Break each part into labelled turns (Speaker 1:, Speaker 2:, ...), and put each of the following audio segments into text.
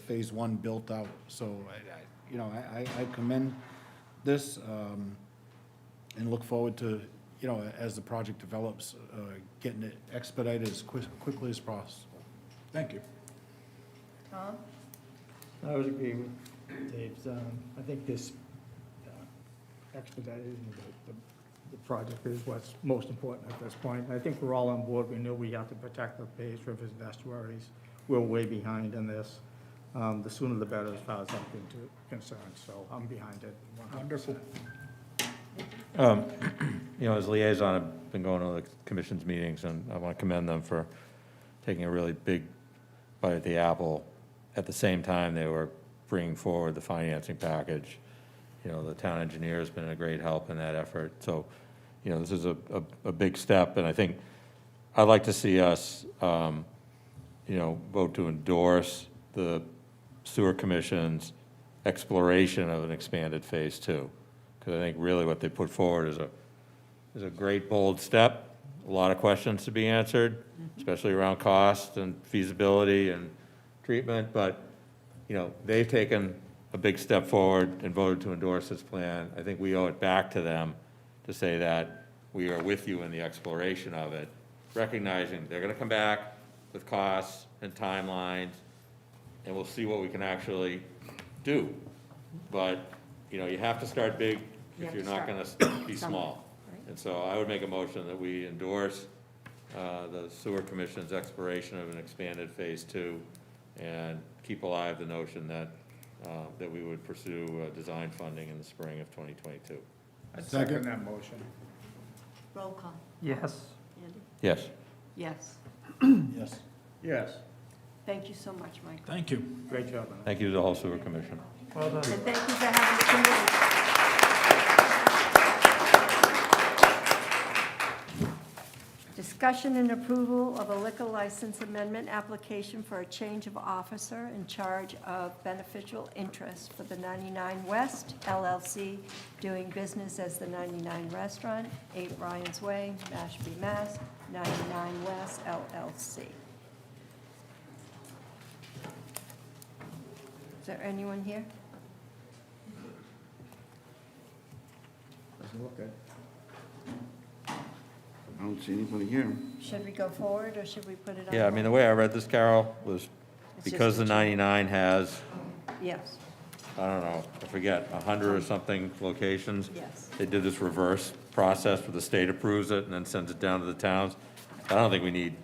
Speaker 1: Phase One built out. So, I- I- you know, I I- I commend this um, and look forward to, you know, as the project develops, uh, getting it expedited as quick- quickly as possible. Thank you.
Speaker 2: Tom?
Speaker 3: I would agree with Dave's, um, I think this uh, expedited, and the, the- the project is what's most important at this point. I think we're all on board, we know we have to protect the Bay's rivers and estuaries, we're way behind in this. Um, the sooner the better as far as I'm con- concerned, so I'm behind it one hundred percent.
Speaker 4: Um, You know, as liaison, I've been going to the commission's meetings, and I want to commend them for taking a really big bite at the apple. At the same time, they were bringing forward the financing package. You know, the town engineer's been a great help in that effort. So, you know, this is a, a, a big step, and I think, I'd like to see us, um, you know, vote to endorse the sewer commission's exploration of an expanded phase two. Because I think really what they put forward is a, is a great bold step, a lot of questions to be answered,
Speaker 2: Mm-hmm.
Speaker 4: especially around cost and feasibility and treatment, but, you know, they've taken a big step forward and voted to endorse this plan. I think we owe it back to them to say that we are with you in the exploration of it, recognizing they're gonna come back with costs and timelines, and we'll see what we can actually do. But, you know, you have to start big
Speaker 2: Mm-hmm. You
Speaker 4: if
Speaker 2: have
Speaker 4: you're
Speaker 2: to
Speaker 4: not
Speaker 2: start.
Speaker 4: gonna be
Speaker 2: Somewhere,
Speaker 4: small.
Speaker 2: right.
Speaker 4: And so I would make a motion that we endorse uh, the sewer commission's exploration of an expanded phase two and keep alive the notion that, uh, that we would pursue uh, design funding in the spring of 2022.
Speaker 3: I
Speaker 1: second
Speaker 3: that motion.
Speaker 2: Roll call.
Speaker 3: Yes.
Speaker 2: Andy?
Speaker 4: Yes.
Speaker 2: Yes.
Speaker 1: Yes.
Speaker 3: Yes.
Speaker 2: Thank you so much, Mike.
Speaker 5: Thank you.
Speaker 3: Great job. Anna.
Speaker 4: Thank you to the whole sewer commission.
Speaker 3: Well done.
Speaker 2: And thank you for having the committee. Discussion and approval of a liquor license amendment application for a change of officer in charge of beneficial interest for the 99 West LLC, doing business as the 99 Restaurant, 8 Ryan's Way, Mashpee, Mass., 99 West LLC. Is there anyone here?
Speaker 3: Doesn't look good.
Speaker 6: I don't see anybody here.
Speaker 2: Should we go forward, or should we put it on?
Speaker 4: Yeah, I mean, the way I read this, Carol, was
Speaker 2: It's just
Speaker 4: because the
Speaker 2: a change.
Speaker 4: 99 has,
Speaker 2: hold? Yes,
Speaker 4: I don't know, I forget, 100 or something locations.
Speaker 2: yes.
Speaker 4: They did this reverse process where the state approves it and then sends it down to the towns. I don't think we need,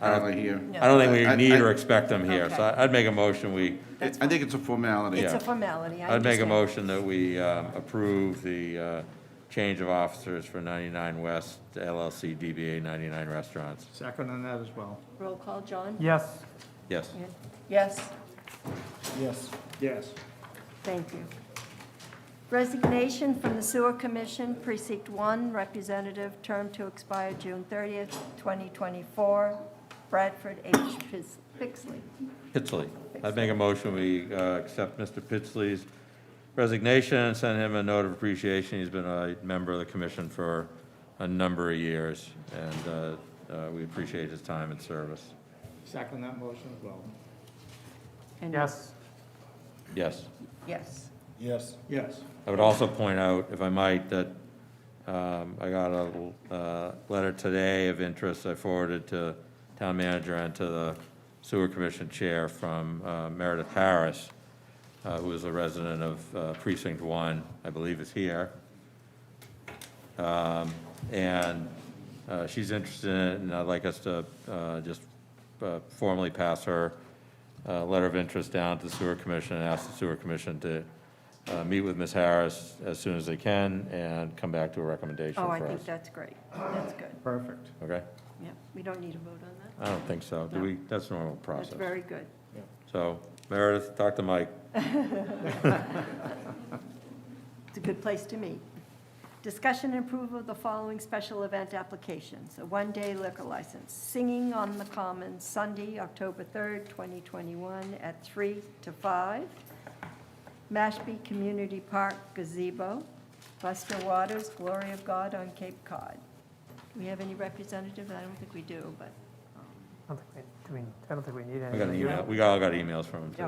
Speaker 4: I
Speaker 6: Are
Speaker 4: don't,
Speaker 6: they here?
Speaker 2: No.
Speaker 4: I don't think
Speaker 6: I-
Speaker 4: we
Speaker 6: I-
Speaker 4: need or expect them here. So
Speaker 2: Okay.
Speaker 4: I- I'd make a motion, we,
Speaker 6: I think it's a formality.
Speaker 2: It's
Speaker 4: Yeah.
Speaker 2: a formality, I
Speaker 4: I'd make a
Speaker 2: understand.
Speaker 4: motion that we um, approve the uh, change of officers for 99 West LLC DBA 99 Restaurants.
Speaker 3: Second on that as well.
Speaker 2: Roll call, John?
Speaker 3: Yes.
Speaker 4: Yes.
Speaker 2: Yeah. Yes,
Speaker 1: Yes.
Speaker 3: Yes.
Speaker 2: thank you. Resignation from the Sewer Commission, Precinct 1, representative, term to expire June 30th, 2024, Bradford H. Pis- Pixley.
Speaker 4: Pitsley. I'd make a motion, we uh, accept Mr. Pitsley's resignation and send him a note of appreciation. He's been a member of the commission for a number of years, and uh, uh, we appreciate his time and service.
Speaker 3: Second that motion as well.
Speaker 2: And-
Speaker 4: Yes.
Speaker 2: Yes,
Speaker 1: Yes.
Speaker 3: Yes.
Speaker 4: I would also point out, if I might, that um, I got a uh, letter today of interest I forwarded to town manager and to the sewer commission chair from uh, Meredith Harris, uh, who is a resident of uh, precinct one, I believe is here. Um, And uh, she's interested in it, and I'd like us to uh, just uh, formally pass her uh, letter of interest down to the sewer commission and ask the sewer commission to uh, meet with Ms. Harris as soon as they can and come back to a recommendation
Speaker 2: oh,
Speaker 4: for
Speaker 2: I
Speaker 4: us.
Speaker 2: think that's great, that's good,
Speaker 3: Perfect.
Speaker 4: Okay?
Speaker 2: yeah, we don't need a vote on that,
Speaker 4: I don't think so. Do
Speaker 2: No.
Speaker 4: we, that's normal process.
Speaker 2: that's very good.
Speaker 4: So Meredith, talk to Mike.
Speaker 2: It's a good place to meet. Discussion and approval of the following special event applications. A one-day liquor license, Singing on the Common, Sunday, October 3rd, 2021, at 3 to 5. Mashpee Community Park gazebo. Buster Waters, Glory of God on Cape Cod. Do we have any representative? I don't think we do, but
Speaker 7: I don't think we, do we, I don't think we need any.
Speaker 4: We got an email, we all got emails from him
Speaker 2: Yeah,